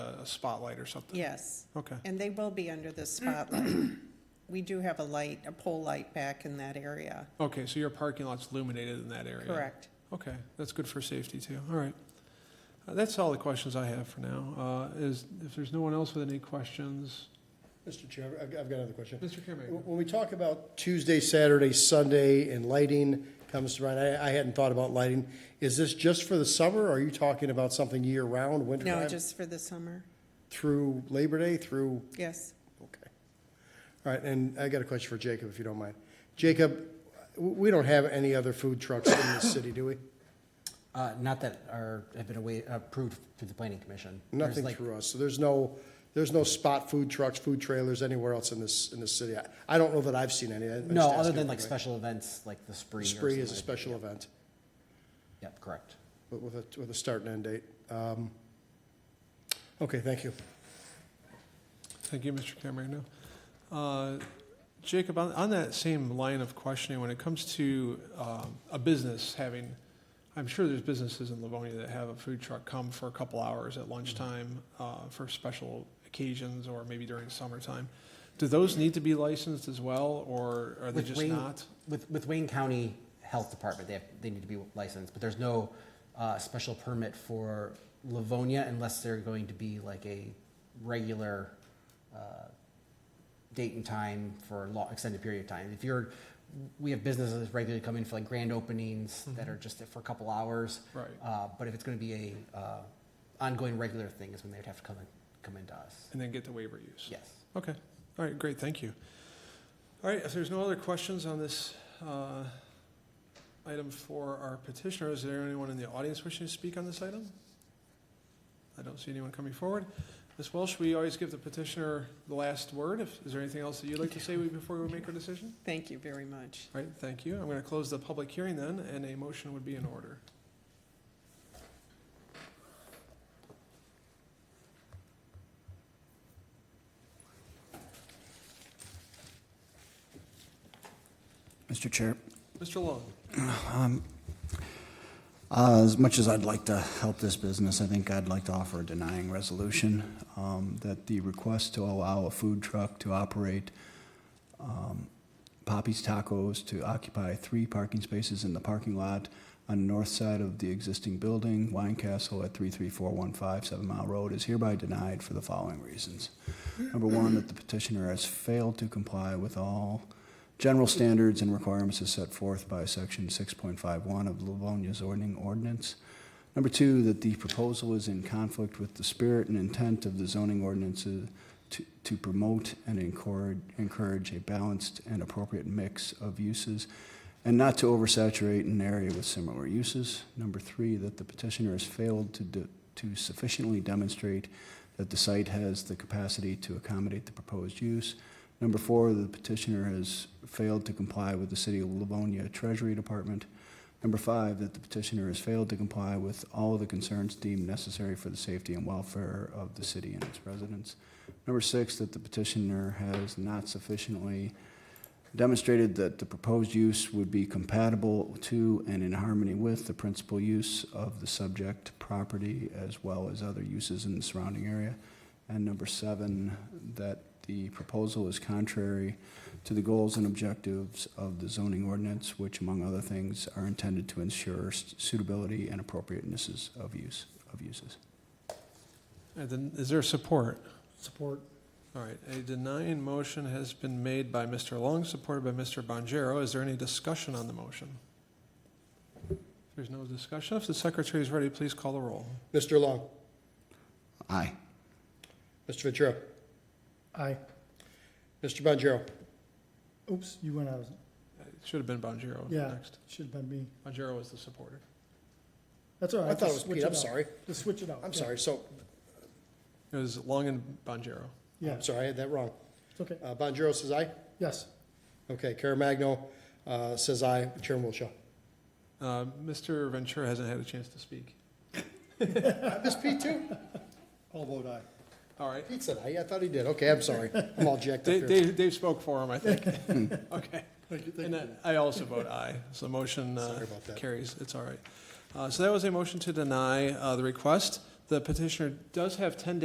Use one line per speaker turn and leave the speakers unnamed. a spotlight or something?
Yes,
Okay,
and they will be under the spotlight. We do have a light, a pole light back in that area,
okay, so your parking lot's illuminated in that area?
correct?
Okay, that's good for safety too, all right. Uh, That's all the questions I have for now. Uh, Is, if there's no one else with any questions,
Mr. Chair, I've I've got another question.
Mr. Caremaker?
When we talk about Tuesday, Saturday, Sunday, and lighting comes to mind, I, I hadn't thought about lighting. Is this just for the summer? or Are you talking about something year-round,
No,
wintertime,
just for the summer,
through Labor Day, through,
yes.
okay. All right, and I got a question for Jacob, if you don't mind. Jacob, w- we don't have any other food trucks in this city, do we?
Uh, not that are, have been away, approved through the planning commission. There's
Nothing
like-
through us, so there's no, there's no spot food trucks, food trailers anywhere else in this, in this city. I- I don't know that I've seen any. I- I'm
No,
just
other
asking
than
if
like
anybody-
special events, like the spree. or
Spree is a
something like-
special event.
Yep, correct.
But with a, with a start and end date. Um, Okay, thank you.
Thank you, Mr. Camarena. Uh, Jacob, on, on that same line of questioning, when it comes to um, a business having, I'm sure there's businesses in Livonia that have a food truck come for a couple hours at lunchtime uh, for special occasions or maybe during summertime. Do those need to be licensed as well, or are they
With
just
Wayne-
not?
With, with Wayne County Health Department, they have, they need to be licensed, but there's no, uh, special permit for Livonia unless they're going to be like a regular, uh, date and time for a long, extended period of time. If you're, we have businesses regularly come in for like grand openings
Mm-hmm.
that are just for a couple hours.
Right.
Uh, but if it's gonna be a, uh, ongoing regular thing is when they'd have to come in, come into us.
And then get the waiver use?
Yes.
Okay, all right, great, thank you. All right, if there's no other questions on this uh, item for our petitioner, is there anyone in the audience wishing to speak on this item? I don't see anyone coming forward. Ms. Welsh, we always give the petitioner the last word. If- Is there anything else that you'd like to say before we make our decision?
Thank you very much.
All right, thank you. I'm going to close the public hearing then, and a motion would be in order.
Mr. Chair,
Mr. Long,
uh, as much as I'd like to help this business, I think I'd like to offer a denying resolution um, that the request to allow a food truck to operate um, Poppy's Tacos to occupy three parking spaces in the parking lot on the north side of the existing building, Wine Castle at 33415 Seven Mile Road, is hereby denied for the following reasons. Number one, that the petitioner has failed to comply with all general standards and requirements as set forth by Section 6.51 of Livonia's zoning ordinance. Number two, that the proposal is in conflict with the spirit and intent of the zoning ordinances to, to promote and encourage, encourage a balanced and appropriate mix of uses and not to oversaturate an area with similar uses. Number three, that the petitioner has failed to, de- to sufficiently demonstrate that the site has the capacity to accommodate the proposed use. Number four, the petitioner has failed to comply with the City of Livonia Treasury Department. Number five, that the petitioner has failed to comply with all of the concerns deemed necessary for the safety and welfare of the city and its residents. Number six, that the petitioner has not sufficiently demonstrated that the proposed use would be compatible to and in harmony with the principal use of the subject property as well as other uses in the surrounding area. And number seven, that the proposal is contrary to the goals and objectives of the zoning ordinance, which among other things are intended to ensure suitability and appropriatenesses of use, of uses.
and then, is there support?
Support.
All right, a denying motion has been made by Mr. Long, supported by Mr. Bonjero. Is there any discussion on the motion? If there's no discussion, if the secretary is ready, please call the roll.
Mr. Long,
Aye.
Mr. Ventura,
Aye.
Mr. Bonjero,
Oops, you went out.
It should have been Bonjero
Yeah.
next.
Should have been me.
Bonjero was the supporter.
That's all right.
I thought it
Oh, just
was
switch
Pete, I'm
out.
sorry,
Just switch it out.
I'm
Yeah.
sorry, so,
It was Long and Bonjero.
Yeah,
I'm sorry, I had that wrong.
it's okay.
Uh, Bonjero says aye?
Yes,
Okay, Caremagno, uh, says aye, Chairman Wilshaw.
Uh, Mr. Ventura hasn't had a chance to speak.
Miss Pete too?
I'll vote aye.
All right,
Pete said aye, I thought he did, okay, I'm sorry, I'm all jacked up
Dave,
here.
Dave, Dave spoke for him, I think. Okay. And then I also vote aye, so the motion uh,
Sorry about that.
carries, it's all right. Uh, So that was a motion to deny uh, the request. The petitioner does have 10